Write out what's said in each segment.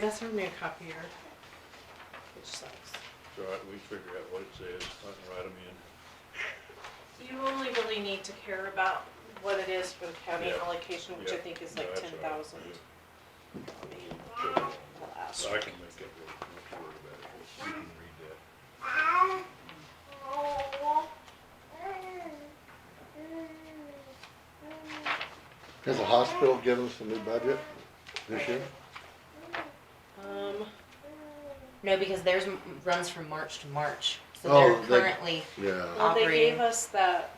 That's her new copier, which sucks. It's all right, we figure out what it says, I can write them in. You only really need to care about what it is for the county Yeah. allocation, which I Yeah. think is No, like that's all ten right. thousand. So I can make that work, not to worry about it, you can read that. Has the hospital given us a new budget this year? Um, No, because theirs m- runs from March to March, so Oh, they're they- currently, Yeah, well, they Operating. gave us that,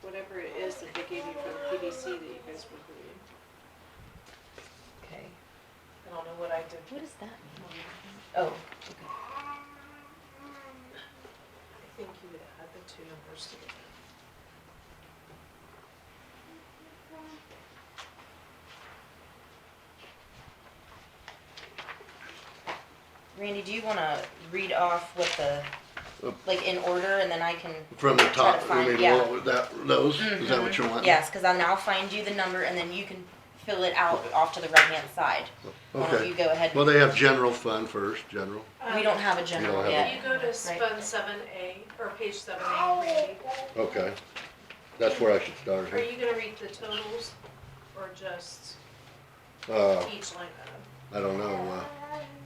whatever it is that they gave you for the PDC that you guys were doing. okay, I don't know what I did. what does that mean? Oh, I think you would add the two numbers together. Randy, do you wanna read off what the, Oop. like in order and then I can? from the Mm-hmm. Try top, to I find- mean, yeah. what, that, those, is that what you're wanting? Yes, cause I'll now find you the number and then you can fill it out off to the right hand side. Why don't you Okay, go ahead, well, they have general fund first, general, we don't have a general Um, have a- If yet. Oh. you go to Fund seven A, or page seven A, read, okay, that's where I should start, are you gonna read the totals, or just uh, each line item? I don't know,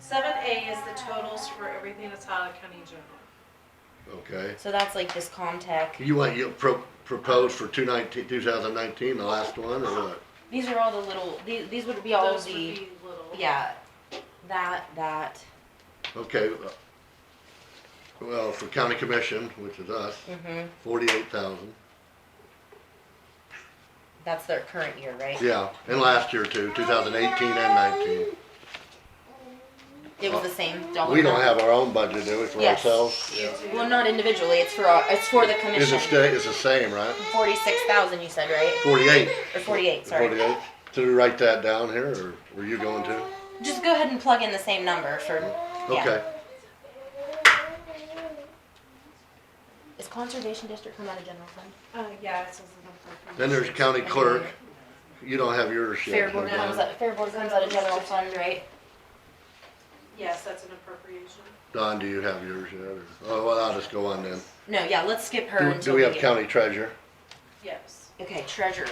Seven A is the totals for everything that's out of county general. uh, okay. So that's like this Comtech, You want, you pro- propose for two nineteen, two thousand nineteen, the last one, or what? these are all the little, these, these would be all Those would the, be little. yeah, that, that, Okay, uh, well, for county commission, which is us, mhm, forty-eight thousand, that's their current year, right? yeah, and last year too, two thousand eighteen and nineteen. It was the same dollar. We don't amount? have our own budget, do we, for Yes. ourselves? You do. Well, not individually. It's for uh, it's for the Is commission. it stay, it's the same, right? Forty-six thousand, you said, right? Forty-eight. Or forty-eight? Sorry. Forty-eight. Did we write that down here, or were you going to? Just go ahead and plug in the same number for. Yeah. Okay. Is conservation district come out of general fund? Uh, yeah, it says the Then number. there's county clerk. You don't have yours Fair yet. board huh, comes Don? out. Fair board comes out of general fund, right? Yes, that's an appropriation. Don, do you have yours yet? or- Oh, well, I'll just go on then. No, yeah. Let's skip her Do- until Do we have get- county treasurer? Yes. Okay, treasurer.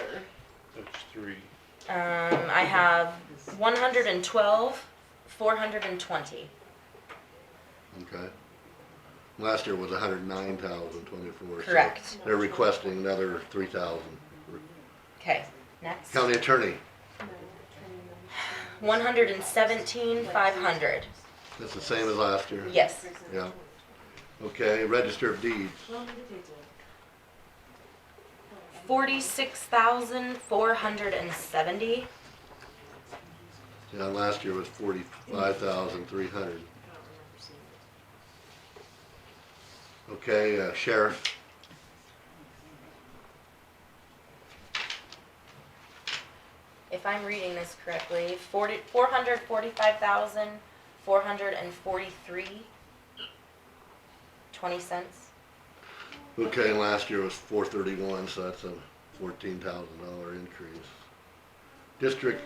That's three, Um, I have one hundred and twelve, four hundred and twenty. Okay. Last year was a hundred and nine thousand twenty-four. so Correct. They're requesting another three thousand. Okay, next. County attorney, One hundred and seventeen, five hundred. that's the same as last year? Yes. Yeah. Okay, register of deeds. Forty-six thousand, four hundred and seventy. Yeah, last year was forty-five thousand three hundred. Okay, uh, sheriff, if I'm reading this correctly, forty, four hundred forty-five thousand, four hundred and forty-three, twenty cents. okay, and last year was four thirty-one, so that's a fourteen thousand dollar increase. District,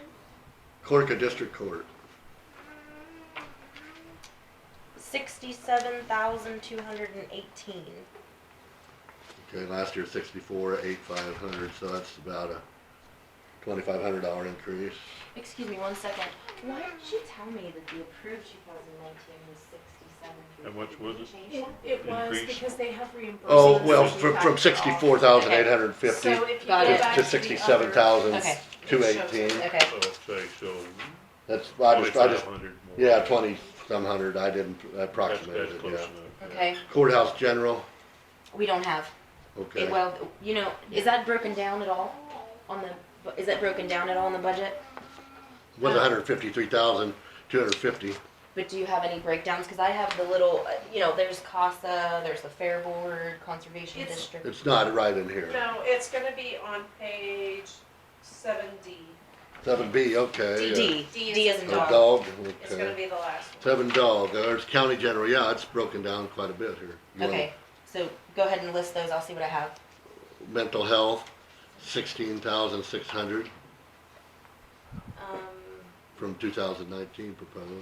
clerk of district court, Sixty-seven thousand, two hundred and eighteen. okay, last year sixty-four, eight five hundred, so that's about a twenty-five hundred dollar increase. Excuse me, one second. Why did she tell me that the approved two thousand nineteen was sixty-seven? How much was it? It was Increase. because they have reimbursements. Oh, well, that you from, have from to offer. sixty-four thousand eight hundred and fifty So if you go Got it. back to to the sixty-seven other- thousand Okay, two it shows eighteen, okay. I'll say, so that's, I just, I twenty-five just, hundred more. yeah, twenty-some hundred, I didn't That's, approximate that's it, close yeah. enough. yeah. Okay, Courthouse general, we don't have, eh, okay. well, you know, is that broken down at all on the, bu- is that broken down at all in the budget? was a hundred fifty-three thousand, two hundred fifty. But do you have any breakdowns? Because I have the little, uh, you know, there's CASA, there's the Fair Board, Conservation It's- District. It's not right in here. No, it's gonna be on page seven D. Seven B, okay. D, D D, is D as in A dog. dog. dog, It's gonna okay. be the last one. Seven dog, Uh, it's county general, yeah, it's broken down quite a bit here. You want Okay, so go ahead and list those, I'll see what I have. Mental health, sixteen thousand six hundred. Um, from two thousand nineteen proposed.